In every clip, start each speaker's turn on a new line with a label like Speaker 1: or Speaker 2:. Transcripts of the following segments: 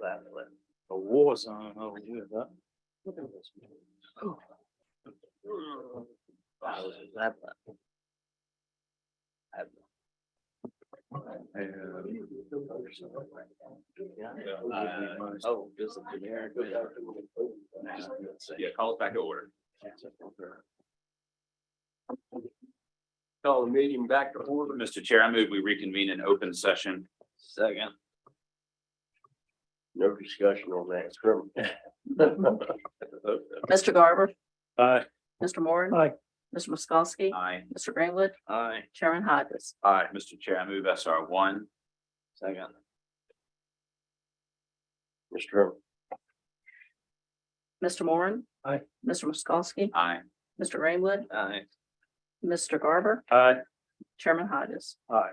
Speaker 1: that, but a war zone over here, huh? I was at that. one. I- Uh, Oh, just a generic.
Speaker 2: Yeah, call us back to order.
Speaker 1: Call the meeting back to order.
Speaker 2: Mr. Chair, I move we reconvene in open session.
Speaker 1: Second. No discussion on that, scrimmage.
Speaker 3: Mr. Garber,
Speaker 1: Aye.
Speaker 3: Mr. Moore.
Speaker 1: Aye.
Speaker 3: Mr. Miskowski,
Speaker 2: Aye.
Speaker 3: Mr. Greenwood,
Speaker 1: Aye.
Speaker 3: Chairman Hodges.
Speaker 2: Aye, Mr. Chair, I move SR one.
Speaker 1: Second. Mr. Herman.
Speaker 3: Mr. Moore.
Speaker 1: Aye.
Speaker 3: Mr. Miskowski,
Speaker 2: Aye.
Speaker 3: Mr. Greenwood,
Speaker 1: Aye.
Speaker 3: Mr. Garber,
Speaker 1: Aye.
Speaker 3: Chairman Hodges.
Speaker 1: Aye.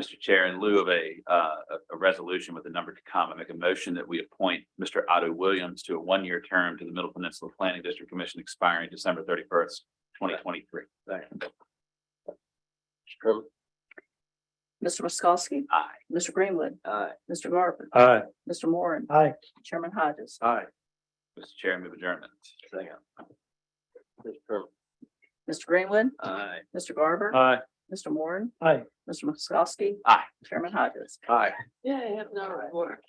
Speaker 2: Mr. Chair, in lieu of a, uh, a- a resolution with a number to come, I make a motion that we appoint Mr. Otto Williams to a one-year term to the Middle Peninsula Planning District Commission expiring December thirty-first, twenty twenty-three.
Speaker 1: Second. Mr. Herman.
Speaker 3: Mr. Miskowski.
Speaker 2: Aye.
Speaker 3: Mr. Greenwood,
Speaker 1: Aye.
Speaker 3: Mr. Garber,
Speaker 1: Aye.
Speaker 3: Mr. Moore,
Speaker 1: Aye.
Speaker 3: Chairman Hodges.
Speaker 1: Aye.
Speaker 2: Mr. Chair, I move adjournment.
Speaker 1: Second. Mr. Herman.
Speaker 3: Mr. Greenwood,
Speaker 1: Aye.
Speaker 3: Mr. Garber,
Speaker 1: Aye.
Speaker 3: Mr. Moore.
Speaker 1: Aye.
Speaker 3: Mr. Miskowski.
Speaker 2: Aye.
Speaker 3: Chairman Hodges.
Speaker 1: Aye.
Speaker 3: Yeah, I have no work.